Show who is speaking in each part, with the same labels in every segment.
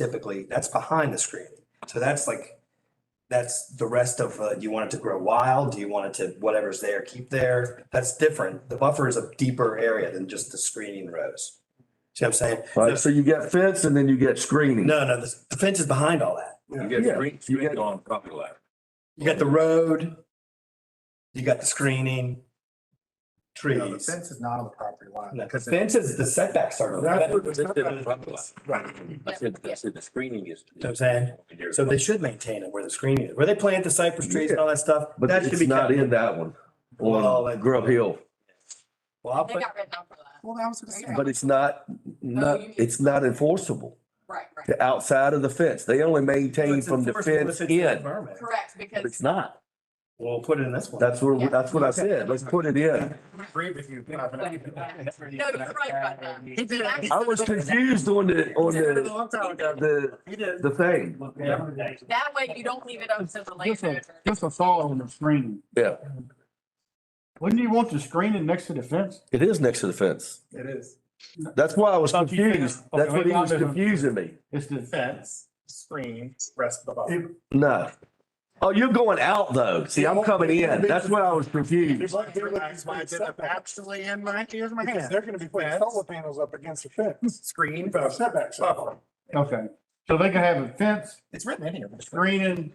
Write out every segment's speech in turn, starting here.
Speaker 1: typically, that's behind the screen. So that's like, that's the rest of, uh, do you want it to grow wild? Do you want it to, whatever's there, keep there? That's different. The buffer is a deeper area than just the screening rows. See what I'm saying?
Speaker 2: Right, so you get fence and then you get screening.
Speaker 1: No, no, the the fence is behind all that.
Speaker 3: You get
Speaker 2: Yeah,
Speaker 3: screen,
Speaker 2: you
Speaker 3: screen
Speaker 2: get-
Speaker 3: on property line.
Speaker 1: You got the road. You got the screening.
Speaker 4: No, the
Speaker 1: Trees.
Speaker 4: fence is not on the property line.
Speaker 1: No, 'cause fence is the setbacks are.
Speaker 4: That's what-
Speaker 3: That's different property line.
Speaker 4: Right.
Speaker 3: I said, I said the screening is.
Speaker 1: what I'm saying. So they should maintain it where the screening is, where they plant the cypress trees and all that stuff.
Speaker 2: But
Speaker 1: that should
Speaker 2: it's
Speaker 1: be
Speaker 2: not
Speaker 1: kept.
Speaker 2: in that one
Speaker 1: Well, I-
Speaker 2: on Grub Hill,
Speaker 1: Well, I'll
Speaker 5: They
Speaker 1: put,
Speaker 5: got written up for that.
Speaker 4: Well, that was gonna say.
Speaker 2: but it's not, not,
Speaker 5: you mean-
Speaker 2: it's not enforceable.
Speaker 5: Right, right.
Speaker 2: The outside of the fence, they only maintain
Speaker 1: It's
Speaker 2: from the
Speaker 1: enforceable
Speaker 2: fence
Speaker 1: if it's in the
Speaker 2: in,
Speaker 1: permit.
Speaker 5: Correct,
Speaker 2: but it's
Speaker 5: because
Speaker 2: not.
Speaker 1: We'll put it in this one.
Speaker 2: That's what, that's what I said. Let's put it in.
Speaker 4: Agree with you. No,
Speaker 5: No, you're right about that.
Speaker 2: I was confused on the, on the, the,
Speaker 4: He did.
Speaker 2: the thing.
Speaker 5: that way you don't leave it up to the
Speaker 6: Just a,
Speaker 5: landowner.
Speaker 6: just a thought on the screening.
Speaker 2: Yeah,
Speaker 6: Wouldn't you want the screening next to the fence?
Speaker 2: it is next to the fence.
Speaker 4: It is.
Speaker 2: That's why I was
Speaker 6: Thought you said-
Speaker 2: confused. That's what he was confusing me.
Speaker 6: It's the
Speaker 4: Fence, screen, rest of the buffer.
Speaker 2: No. Oh, you're going out though. See, I'm coming in. That's why I was confused.
Speaker 4: Actually, in my, here's my hand. They're gonna be putting solar panels up against the fence. Screen. Setback.
Speaker 6: Okay, so they can have a fence,
Speaker 4: It's written in here.
Speaker 6: screening,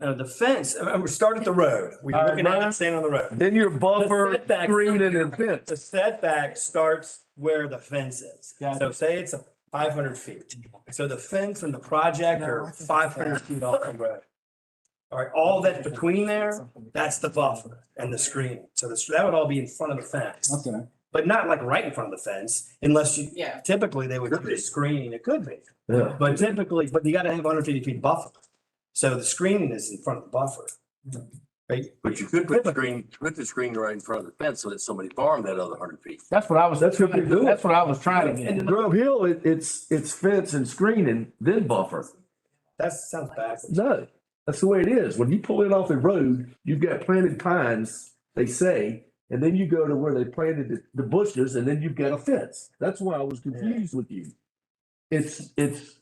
Speaker 1: No, the fence, uh, we start at the road. We're
Speaker 6: All right,
Speaker 1: looking at
Speaker 6: Brian.
Speaker 1: it staying on the road.
Speaker 2: Then your buffer,
Speaker 1: The setback.
Speaker 2: screening and fence.
Speaker 1: The setback starts where the fence is.
Speaker 6: Got it.
Speaker 1: So say it's a five hundred feet. So the fence and the project are five hundred feet off the road. All right, all that's between there, that's the buffer and the screen. So this, that would all be in front of the fence.
Speaker 6: okay.
Speaker 1: But not like right in front of the fence unless you,
Speaker 5: Yeah.
Speaker 1: typically they would do screening. It could be.
Speaker 2: Yeah.
Speaker 1: But typically, but you gotta have hundred fifty feet buffer. So the screening is in front of the buffer.
Speaker 3: But you could put the screen, put the screen right in front of the fence so that somebody farmed that other hundred feet.
Speaker 6: That's what I was,
Speaker 2: That's what they're doing.
Speaker 6: that's what I was trying to
Speaker 2: In
Speaker 6: get.
Speaker 2: Grove Hill, it, it's, it's fence and screening, then buffer.
Speaker 1: That sounds backwards.
Speaker 2: No, that's the way it is. When you pull in off the road, you've got planted pines, they say, and then you go to where they planted the, the bushes and then you've got a fence. That's why I was confused with you. It's, it's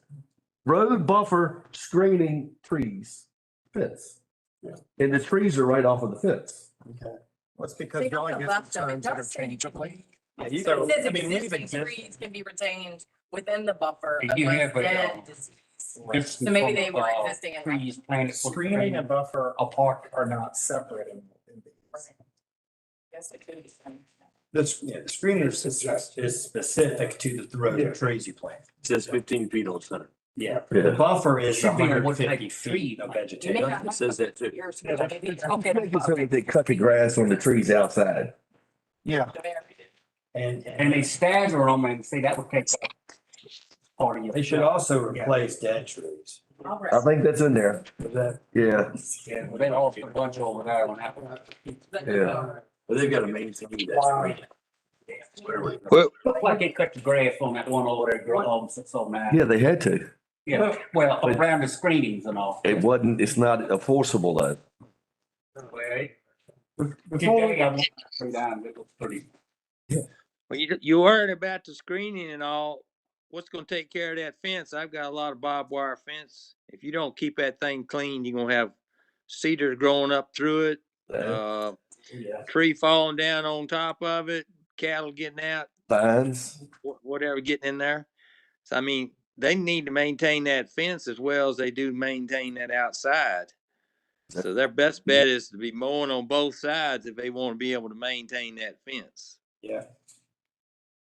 Speaker 2: road buffer, screening, trees, fence. And the trees are right off of the fence.
Speaker 4: It's because
Speaker 5: They got
Speaker 4: Billy
Speaker 5: the
Speaker 4: gets
Speaker 5: left of it.
Speaker 4: terms that are
Speaker 5: Doesn't say-
Speaker 4: changeable.
Speaker 1: Yeah,
Speaker 5: It
Speaker 1: you
Speaker 5: says
Speaker 1: go- I mean, we've
Speaker 5: existing
Speaker 1: existed-
Speaker 5: trees can be retained within the buffer.
Speaker 7: You
Speaker 5: unless
Speaker 7: have a,
Speaker 5: dead
Speaker 7: um,
Speaker 5: disease.
Speaker 7: So
Speaker 5: So maybe they were existing and. not-
Speaker 7: uh, Trees planted. for the
Speaker 4: Screening and buffer apart are not separate in. in these.
Speaker 5: Yes, it could be.
Speaker 1: That's, yeah, the screening is, is- is specific to the- the road and trees you plant.
Speaker 3: It Says fifteen feet on center.
Speaker 1: Yeah. The buffer is
Speaker 7: Something
Speaker 1: hundred
Speaker 7: with like
Speaker 1: fifty feet
Speaker 7: tree.
Speaker 1: of
Speaker 5: You
Speaker 1: vegetation.
Speaker 5: may-
Speaker 3: It says that too.
Speaker 5: Years
Speaker 4: Yeah,
Speaker 5: ago,
Speaker 4: that's-
Speaker 5: maybe. Okay, the buffer.
Speaker 2: they cut the grass on the trees outside.
Speaker 4: Yeah.
Speaker 1: And,
Speaker 7: And they
Speaker 1: and
Speaker 7: stagger them and say that would take part of your.
Speaker 1: they should also replace dead trees.
Speaker 5: All
Speaker 2: I
Speaker 5: right.
Speaker 2: think that's in there.
Speaker 1: Is that-
Speaker 2: Yeah.
Speaker 7: Yeah, well, They lost a bunch over there on that. one.
Speaker 5: But-
Speaker 2: Yeah.
Speaker 3: But they've got to maintain that
Speaker 4: Wow.
Speaker 3: screen. Whatever.
Speaker 7: Looked like they cut the grass on that one over there, girl, um, so- so mad.
Speaker 2: Yeah, they had to.
Speaker 7: Yeah, well, around the screenings and all.
Speaker 2: It wasn't, it's not enforceable though.
Speaker 7: Today, I went through that and it was pretty.
Speaker 8: Well, you, you worried about the screening and all. What's gonna take care of that fence? I've got a lot of barbed wire fence. If you don't keep that thing clean, you're gonna have cedars growing up through it, uh,
Speaker 1: Yeah.
Speaker 8: tree falling down on top of it, cattle getting out,
Speaker 2: Fines.
Speaker 8: wh- whatever getting in there. So I mean, they need to maintain that fence as well as they do maintain that outside.
Speaker 2: That-
Speaker 8: So their best bet is to be mowing on both sides if they wanna be able to maintain that fence.
Speaker 1: Yeah.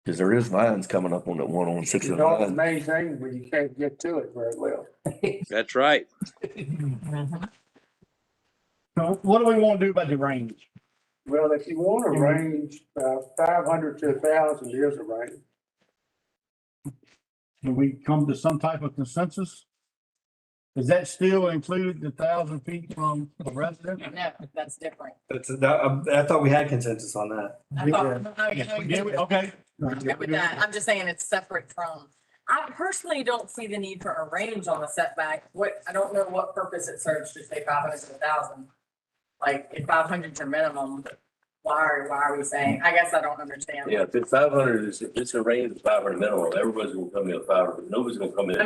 Speaker 2: Cause there is lines coming up on that one on six oh
Speaker 6: It's
Speaker 2: nine.
Speaker 6: amazing, but you can't get to it very well.
Speaker 8: That's right.
Speaker 6: So what do we want to do about the range? Well, if you want a range, uh, five hundred to a thousand is a range. Can we come to some type of consensus? Is that still included the thousand feet from the resident?
Speaker 5: No, that's different.
Speaker 1: That's, that, um, I thought we had consensus on that.
Speaker 5: I thought, no, no, you know, you-
Speaker 6: Yeah, we- Okay.
Speaker 5: I'm good with that. I'm just saying it's separate from, I personally don't see the need for a range on the setback. What, I don't know what purpose it serves to say five hundred to a thousand. Like, if five hundred's your minimum, why are, why are we saying, I guess I don't understand.
Speaker 3: Yeah, if it's five hundred, it's, if it's a range of five hundred minimum, everybody's gonna come in at five hundred, nobody's gonna come in at